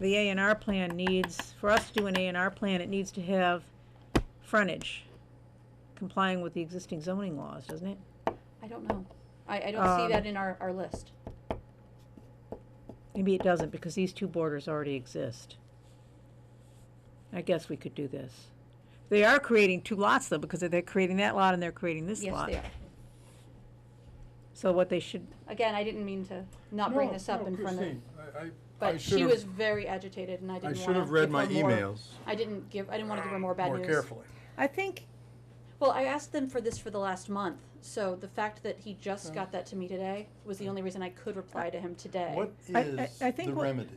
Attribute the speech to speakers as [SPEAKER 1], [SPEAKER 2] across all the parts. [SPEAKER 1] the A and R plan needs, for us to do an A and R plan, it needs to have frontage complying with the existing zoning laws, doesn't it?
[SPEAKER 2] I don't know. I, I don't see
[SPEAKER 1] Um,
[SPEAKER 2] that in our, our list.
[SPEAKER 1] Maybe it doesn't, because these two borders already exist. I guess we could do this. They are creating two lots, though, because they're creating that lot and they're creating this
[SPEAKER 2] Yes,
[SPEAKER 1] lot.
[SPEAKER 2] they are.
[SPEAKER 1] So what they should,
[SPEAKER 2] Again, I didn't mean to not bring this up in front of, but she was very agitated and I
[SPEAKER 3] I
[SPEAKER 2] didn't
[SPEAKER 3] should
[SPEAKER 2] wanna
[SPEAKER 3] have read
[SPEAKER 2] give her
[SPEAKER 3] my
[SPEAKER 2] more-
[SPEAKER 3] emails
[SPEAKER 2] I didn't give, I didn't wanna give her more bad
[SPEAKER 3] more
[SPEAKER 2] news.
[SPEAKER 3] carefully.
[SPEAKER 1] I think,
[SPEAKER 2] Well, I asked them for this for the last month, so the fact that he just got that to me today was the only reason I could reply to him today.
[SPEAKER 3] What
[SPEAKER 1] I-
[SPEAKER 3] is
[SPEAKER 1] I think
[SPEAKER 3] the
[SPEAKER 1] what-
[SPEAKER 3] remedy?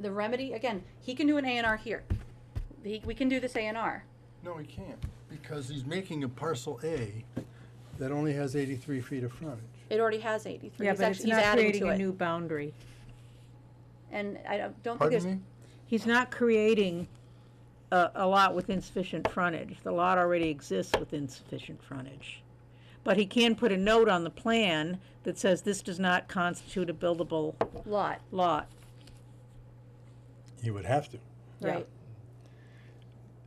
[SPEAKER 2] The remedy, again, he can do an A and R here. He, we can do this A and R.
[SPEAKER 3] No, he can't, because he's making a parcel A that only has eighty-three feet of frontage.
[SPEAKER 2] It already has eighty-three.
[SPEAKER 1] yeah,
[SPEAKER 2] He's
[SPEAKER 1] but
[SPEAKER 2] act-
[SPEAKER 1] it's
[SPEAKER 2] he's
[SPEAKER 1] not
[SPEAKER 2] adding
[SPEAKER 1] creating
[SPEAKER 2] to
[SPEAKER 1] a
[SPEAKER 2] it.
[SPEAKER 1] new boundary.
[SPEAKER 2] And I don't- don't think there's.
[SPEAKER 3] Pardon me?
[SPEAKER 1] He's not creating a, a lot with insufficient frontage. The lot already exists with insufficient frontage. But he can put a note on the plan that says this does not constitute a buildable
[SPEAKER 2] lot,
[SPEAKER 1] lot.
[SPEAKER 3] He would have to.
[SPEAKER 1] Yeah.
[SPEAKER 2] right?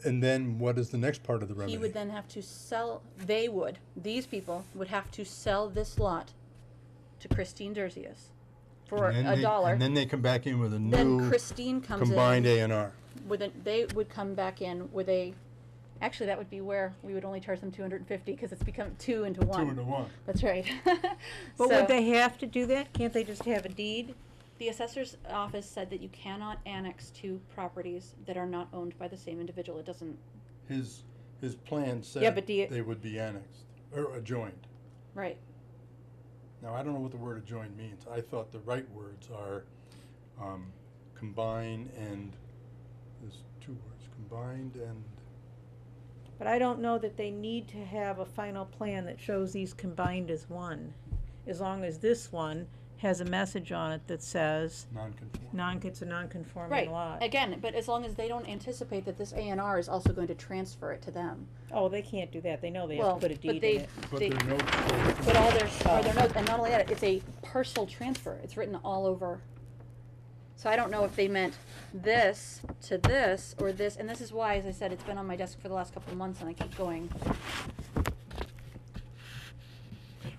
[SPEAKER 3] And then what is the next part of the remedy?
[SPEAKER 2] He would then have to sell, they would, these people would have to sell this lot to Christine Derzius for
[SPEAKER 3] And then
[SPEAKER 2] a
[SPEAKER 3] they-
[SPEAKER 2] dollar.
[SPEAKER 3] And then they come back in with a
[SPEAKER 2] Then
[SPEAKER 3] new
[SPEAKER 2] Christine comes
[SPEAKER 3] combined
[SPEAKER 2] in
[SPEAKER 3] A and R.
[SPEAKER 2] with a, they would come back in with a, actually, that would be where we would only charge them two hundred and fifty, cause it's become two into one.
[SPEAKER 3] one.
[SPEAKER 2] That's right.
[SPEAKER 1] But
[SPEAKER 2] So-
[SPEAKER 1] would they have to do that? Can't they just have a deed?
[SPEAKER 2] The assessor's office said that you cannot annex two properties that are not owned by the same individual. It doesn't,
[SPEAKER 3] His, his plan said.
[SPEAKER 1] but do you-
[SPEAKER 3] They would be annexed, or adjoined.
[SPEAKER 2] right,
[SPEAKER 3] Now, I don't know what the word adjoined means. I thought the right words are um, combine and, there's two words, combined and,
[SPEAKER 1] But I don't know that they need to have a final plan that shows these combined as one, as long as this one has a message on it that says
[SPEAKER 3] non-conforming.
[SPEAKER 1] non, it's a non-conforming
[SPEAKER 2] right.
[SPEAKER 1] lot.
[SPEAKER 2] Again, but as long as they don't anticipate that this A and R is also going to transfer it to them.
[SPEAKER 1] Oh, they can't do that. They know they have
[SPEAKER 2] Well,
[SPEAKER 1] to put a
[SPEAKER 2] but
[SPEAKER 1] deed
[SPEAKER 2] they-
[SPEAKER 1] in it. Oh.
[SPEAKER 3] But
[SPEAKER 2] They-
[SPEAKER 3] there are no,
[SPEAKER 2] But all their, are their notes, and not only that, it's a parcel transfer. It's written all over. So I don't know if they meant this to this or this, and this is why, as I said, it's been on my desk for the last couple of months and I keep going.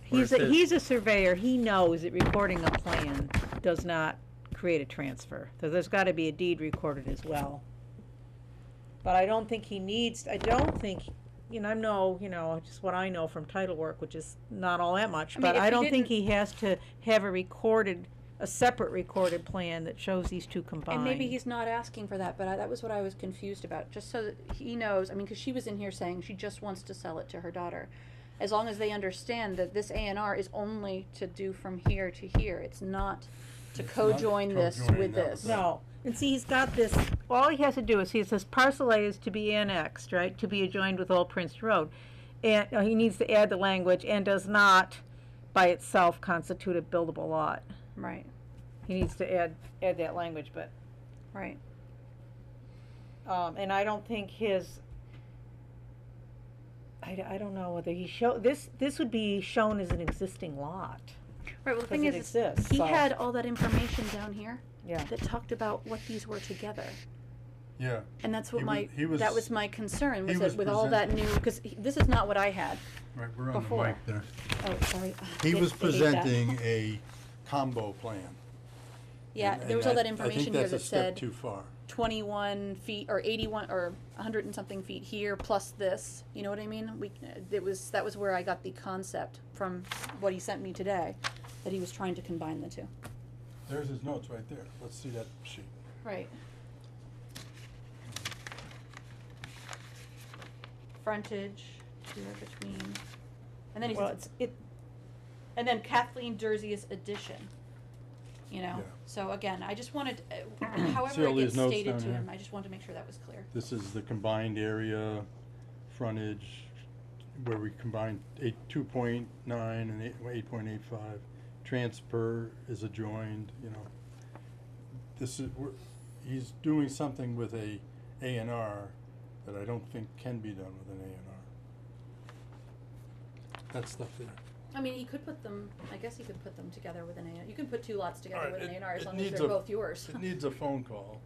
[SPEAKER 1] He's
[SPEAKER 4] Or it
[SPEAKER 1] a,
[SPEAKER 4] says-
[SPEAKER 1] he's a surveyor, he knows that recording a plan does not create a transfer, so there's gotta be a deed recorded as well. But I don't think he needs, I don't think, you know, I know, you know, just what I know from title work, which is not all that much,
[SPEAKER 2] I mean,
[SPEAKER 1] but
[SPEAKER 2] if
[SPEAKER 1] I
[SPEAKER 2] he
[SPEAKER 1] don't think
[SPEAKER 2] didn't-
[SPEAKER 1] he has to have a recorded, a separate recorded plan that shows these two combined.
[SPEAKER 2] And maybe he's not asking for that, but I, that was what I was confused about, just so that he knows, I mean, cause she was in here saying she just wants to sell it to her daughter. As long as they understand that this A and R is only to do from here to here, it's not to
[SPEAKER 3] It's not
[SPEAKER 2] co-join this
[SPEAKER 3] co-joining
[SPEAKER 2] with
[SPEAKER 3] that with
[SPEAKER 2] this.
[SPEAKER 3] that.
[SPEAKER 1] No, and see, he's got this, all he has to do is, he says parcel A is to be annexed, right, to be adjoined with Old Prince Road. And, uh, he needs to add the language, and does not by itself constitute a buildable lot.
[SPEAKER 2] Right,
[SPEAKER 1] He needs to add, add that language, but,
[SPEAKER 2] right.
[SPEAKER 1] um, and I don't think his, I, d- I don't know whether he show, this, this would be shown as an existing lot,
[SPEAKER 2] Right, well, the thing
[SPEAKER 1] Because
[SPEAKER 2] is,
[SPEAKER 1] it
[SPEAKER 2] is
[SPEAKER 1] exists,
[SPEAKER 2] he
[SPEAKER 1] so-
[SPEAKER 2] had all that information down here
[SPEAKER 1] yeah.
[SPEAKER 2] that talked about what these were together.
[SPEAKER 3] yeah,
[SPEAKER 2] And that's what
[SPEAKER 3] He
[SPEAKER 2] my,
[SPEAKER 3] was- he was-
[SPEAKER 2] that was my concern, was
[SPEAKER 3] he
[SPEAKER 2] that
[SPEAKER 3] was
[SPEAKER 2] with all that new, cause he- this is not what I had.
[SPEAKER 3] right, we're on the
[SPEAKER 2] Before.
[SPEAKER 3] mic there.
[SPEAKER 2] Oh, sorry. Ah,
[SPEAKER 3] He
[SPEAKER 2] yes,
[SPEAKER 3] was
[SPEAKER 2] I hate that.
[SPEAKER 3] presenting a combo plan.
[SPEAKER 2] Yeah,
[SPEAKER 3] and-
[SPEAKER 2] there was
[SPEAKER 3] and
[SPEAKER 2] all that
[SPEAKER 3] I-
[SPEAKER 2] information here
[SPEAKER 3] I
[SPEAKER 2] that
[SPEAKER 3] think that's a step
[SPEAKER 2] said
[SPEAKER 3] too far.
[SPEAKER 2] twenty-one feet, or eighty-one, or hundred and something feet here, plus this, you know what I mean? We, it was, that was where I got the concept from what he sent me today, that he was trying to combine the two.
[SPEAKER 3] There's his notes right there. Let's see that sheet.
[SPEAKER 2] Right. Frontage, here between, and then he
[SPEAKER 1] Well,
[SPEAKER 2] says,
[SPEAKER 1] it's, it,
[SPEAKER 2] and then Kathleen Derzius addition, you know?
[SPEAKER 3] Yeah.
[SPEAKER 2] So again, I just wanted, uh, however it
[SPEAKER 3] all
[SPEAKER 2] gets
[SPEAKER 3] these notes
[SPEAKER 2] stated
[SPEAKER 3] down
[SPEAKER 2] to
[SPEAKER 3] here?
[SPEAKER 2] him, I just wanted to make sure that was clear.
[SPEAKER 3] This is the combined area, frontage, where we combined eight, two point nine and eight, eight point eight five. Transfer is adjoined, you know. This is, we're, he's doing something with a A and R that I don't think can be done with an A and R. That stuff there.
[SPEAKER 2] I mean, he could put them, I guess he could put them together with an A, you can put two lots together
[SPEAKER 3] Alright,
[SPEAKER 2] with an
[SPEAKER 3] it-
[SPEAKER 2] A and R as
[SPEAKER 3] it
[SPEAKER 2] long as
[SPEAKER 3] needs
[SPEAKER 2] they're
[SPEAKER 3] a-
[SPEAKER 2] both yours.
[SPEAKER 3] It needs a phone call.